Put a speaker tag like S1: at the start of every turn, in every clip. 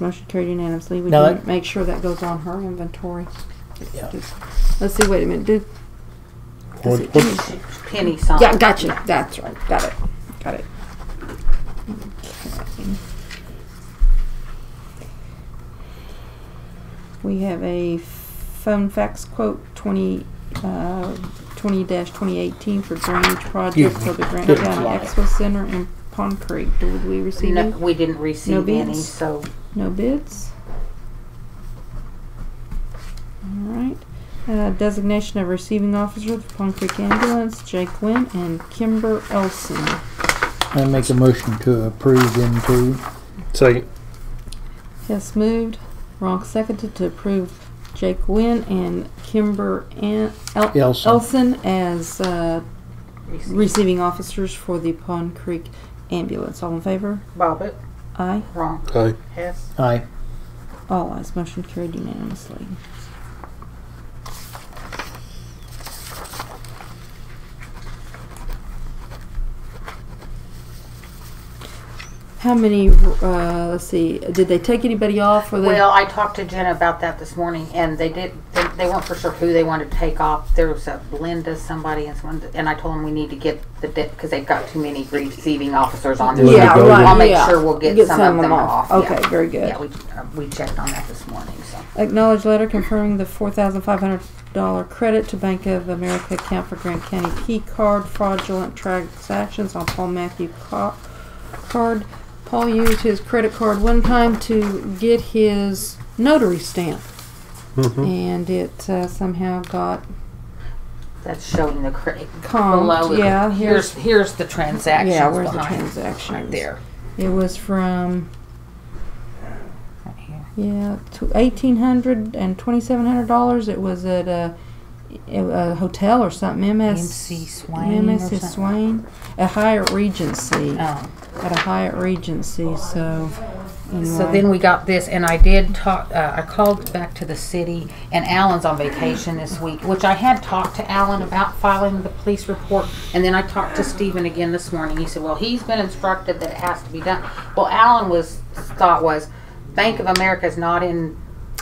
S1: Motion carried unanimously. We
S2: Now
S1: didn't
S2: that-
S1: make sure that goes on her inventory.
S2: Yeah.
S1: Just- Let's see, wait a minute, did,
S2: What,
S1: it-
S2: what,
S3: Penny song.
S1: yeah, gotcha, that's right, got it, got it. Okay. We have a phone fax quote twenty, uh, twenty twenty eighteen for drainage project
S2: Excuse
S1: for
S2: me.
S1: the Grant
S2: Didn't
S1: County
S2: fly.
S1: Expo Center in Pond Creek. Did we receive
S3: No,
S1: any?
S3: we didn't receive any,
S1: bids?
S3: so
S1: No bids. Alright, uh, designation of receiving officer for Pond Creek Ambulance, Jake Wynn and Kimber Elson.
S2: I make a motion to approve them two.
S4: Second.
S1: Hess moved, Ronk seconded to approve Jake Wynn and Kimber An- El-
S2: Elson.
S1: Elson as, uh,
S3: received.
S1: receiving officers for the Pond Creek Ambulance. All in favor?
S3: Bobbit,
S1: Aye.
S3: wrong.
S4: Aye.
S3: Hess,
S2: Aye.
S1: All eyes motion carried unanimously. How many, uh, let's see, did they take anybody off? Were they-
S3: Well, I talked to Jenna about that this morning, and they did. They, they weren't for sure who they wanted to take off. There was a Linda, somebody, and someone. And I told them we need to get the because they've got too many receiving officers on. there.
S1: Yeah,
S2: Linda Golden.
S1: right,
S3: I'll make
S1: yeah.
S3: sure we'll get, some, of them off. yeah.
S1: Okay, very good.
S3: Yeah, we uh, we checked on that this morning. So
S1: Acknowledge letter confirming the four thousand five hundred dollar credit to Bank of America account for Grant County key card fraudulent transactions on Paul Matthew Ca- card. Paul used his credit card one time to get his notary stamp, and it uh, somehow got
S3: that's showing the credit below.
S1: comped.
S3: it.
S1: Yeah,
S3: here's
S1: here's
S3: here's the transactions.
S1: yeah, where's the
S3: behind,
S1: transaction?
S3: Right there.
S1: It was from
S3: Right here.
S1: Yeah, to eighteen hundred and twenty-seven hundred dollars. It was at a, a hotel or something. MS
S3: MC Swain or
S1: MS
S3: something.
S1: Swain, a Hyatt Regency.
S3: Oh.
S1: At a Hyatt Regency. So. Anyway.
S3: So then we got this, and I did talk. Uh, I called back to the city, and Alan's on vacation this week, which I had talked to Alan about filing the police report, and then I talked to Stephen again this morning. He said, "Well, he's been instructed that it has to be done." Well, Alan was thought was Bank of America is not in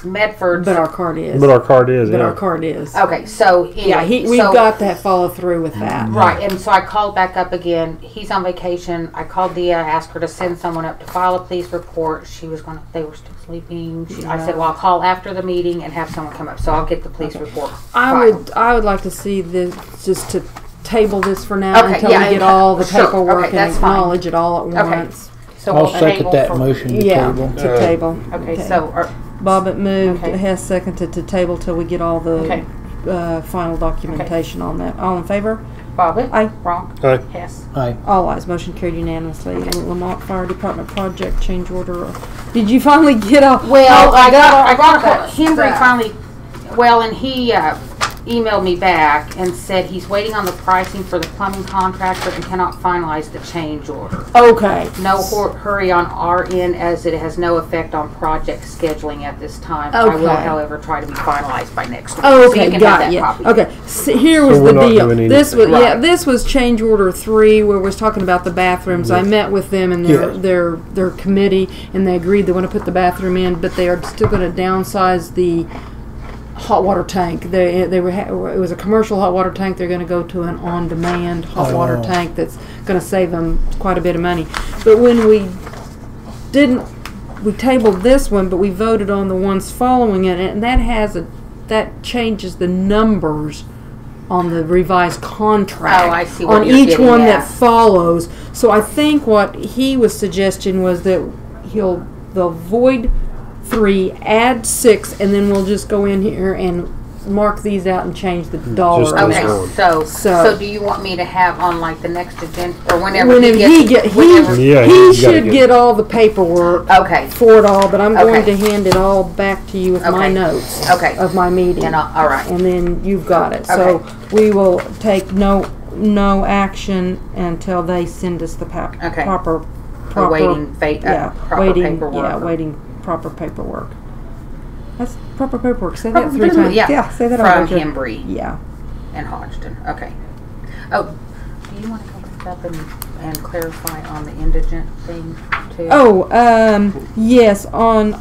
S3: Medford.
S1: but our card is.
S4: But our card is,
S1: But
S4: yeah.
S1: our card is.
S3: okay, so
S1: yeah, he,
S3: anyway,
S1: we've
S3: Oh, so-
S1: got that follow through with
S4: Mm-hmm.
S1: that.
S3: Right, and so I called back up again. He's on vacation. I called Dia, asked her to send someone up to file a police report. She was going. to They were still sleeping. She, I said, "Well, I'll call after the meeting and have someone come up." So I'll get the police report.
S1: I
S3: filed.
S1: would. I would like to see this just to table this for now
S3: Okay,
S1: until
S3: yeah,
S1: we get
S3: and-
S1: all the
S3: sure,
S1: paperwork
S3: okay,
S1: and
S3: that's fine.
S1: acknowledge it all at
S3: Okay.
S1: once.
S3: So
S2: I'll
S3: we'll
S2: second
S3: table
S2: that
S3: Oh, for-
S2: motion to
S1: Yeah,
S2: table.
S1: to
S4: Uh,
S1: table.
S3: Okay, so uh, are,
S1: Bobbit moved,
S3: Okay.
S1: Hess seconded to table till we get all the
S3: Okay.
S1: uh, final documentation on that. All in favor?
S3: Bobbit,
S1: Aye.
S3: Ronk,
S4: Aye.
S3: Hess.
S2: Aye.
S1: All ayes, motion carried unanimously. Lamont Fire Department project change order. Did you finally get a?
S3: Well,
S1: Oh,
S3: I got, I
S1: all
S3: got, a-
S1: that
S3: Henry
S1: stuff.
S3: finally, well, and he, uh, emailed me back and said he's waiting on the pricing for the plumbing contractor and cannot finalize the change order.
S1: Okay,
S3: No hor- hurry on our end as it has no effect on project scheduling at this time. I will
S1: Okay. Oh,
S3: however try to be finalized by next week. So you
S1: okay,
S3: can have
S1: got
S3: that
S1: you.
S3: copy.
S1: Okay, so here was
S4: we're
S1: the
S4: not
S1: deal.
S4: doing
S1: This was,
S4: anything.
S1: yeah, this was change order three where we was talking about the bathrooms. I met with them and their,
S2: Yes.
S1: their, their committee and they agreed they wanna put the bathroom in, but they are still gonna downsize the hot water tank. They, they were, ha- it was a commercial hot water tank. They're gonna go to an on-demand hot water
S2: Oh.
S1: tank that's gonna save them quite a bit of money. But when we didn't, we tabled this one, but we voted on the ones following it, and that has a, that changes the numbers on the revised contract.
S3: Oh, I see what
S1: On
S3: you're
S1: each
S3: getting
S1: one
S3: at.
S1: that follows. So I think what he was suggesting was that he'll, they'll void three, add six, and then we'll just go in here and mark these out and change the dollar.
S4: those
S1: amount.
S4: ones.
S3: Okay, so,
S1: So-
S3: so do you want me to have on like the next agenda or whenever
S1: Whenever he
S3: he
S1: get,
S3: gets?
S1: he,
S4: Yeah,
S1: he
S4: he's gotta
S1: should
S4: get-
S1: get all the paperwork
S3: Okay,
S1: for it all, but I'm going to
S3: Okay.
S1: hand it all back to you with my
S3: Okay.
S1: notes
S3: Okay.
S1: of my meeting.
S3: and, I- all right,
S1: And then you've got it. So we will take no, no action until they send us the pa-
S3: Okay.
S1: proper, proper.
S3: awaiting fate, uh,
S1: Yeah,
S3: proper
S1: waiting,
S3: paperwork.
S1: yeah, waiting proper paperwork. That's proper paperwork. Say that three times.
S3: Probably, yeah,
S1: say that
S3: From
S1: over again.
S3: Hembry
S1: Yeah.
S3: and Hodgson, okay. Oh, do you want to go back up and, and clarify on the indigent thing too?
S1: Oh, um, yes, on